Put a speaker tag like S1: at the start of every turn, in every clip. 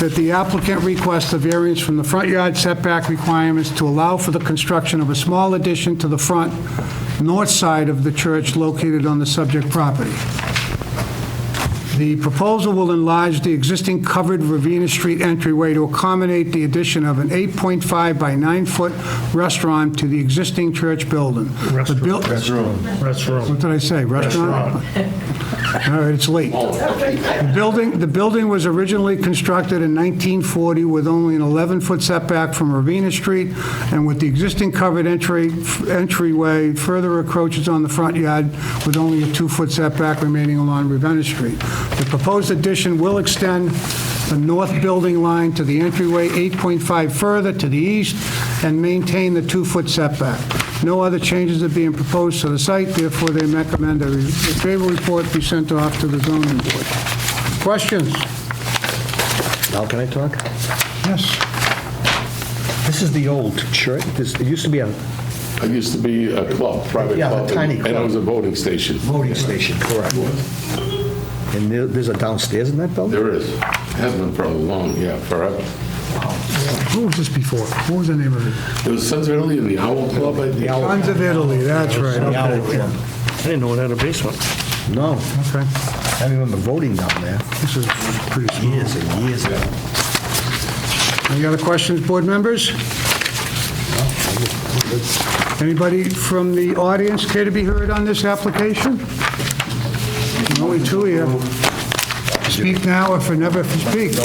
S1: that the applicant requests a variance from the front yard setback requirements to allow for the construction of a small addition to the front north side of the church located on the subject property. The proposal will enlarge the existing covered Ravenna Street entryway to accommodate the addition of an 8.5 by 9-foot restaurant to the existing church building. The buil-
S2: Restroom.
S1: What did I say? Restaurant? All right, it's late. The building, the building was originally constructed in 1940 with only an 11-foot setback from Ravenna Street, and with the existing covered entry, entryway, further encroaches on the front yard with only a two-foot setback remaining along Ravenna Street. The proposed addition will extend the north building line to the entryway 8.5 further to the east and maintain the two-foot setback. No other changes are being proposed to the site, therefore they recommend a favorable report be sent off to the zoning board. Questions?
S3: Now can I talk?
S1: Yes.
S3: This is the old church, this, it used to be a
S4: It used to be a club, private club.
S3: Yeah, the tiny
S4: And it
S3: club.
S4: was a voting station.
S3: voting station, correct? And there- there's a downstairs in that building?
S4: There is. Has been for a long, yeah, forever.
S1: Who was this before? What was the name of it?
S4: It was Sons of Italy and the Owl Club, I think.
S1: Sons of Italy, that's right. Okay.
S2: I didn't know it had a basement.
S3: No,
S1: Okay.
S3: I remember voting down there
S1: This is pretty small.
S3: years and years ago.
S1: Any other questions, board members? Anybody from the audience care to be heard on this application? Only two here. Speak now or for never speak.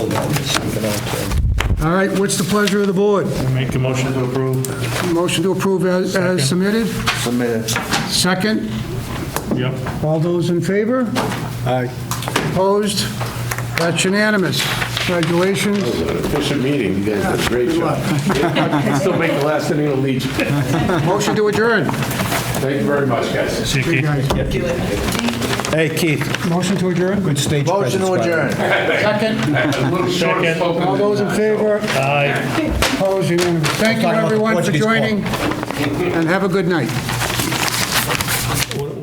S1: All right, what's the pleasure of the board?
S2: Make a motion to approve.
S1: Motion to approve as as submitted? Submitted. Second?
S2: Yep.
S1: All those in favor?
S3: Aye.
S1: Opposed? That's unanimous. Congratulations.
S4: It was an efficient meeting. You guys did a great job. Still make the last inning of the league.
S1: Motion to adjourn.
S4: Thank you very much, guys.
S1: Good guys.
S3: Hey, Keith,
S1: Motion to adjourn?
S3: good stage presence. by the way.
S1: Second?
S4: A little short
S2: Second.
S4: spoken.
S1: All those in favor?
S2: Aye.
S1: Opposed? Unanimous. Thank you, everyone, for joining, and have a good night.
S2: What- uh,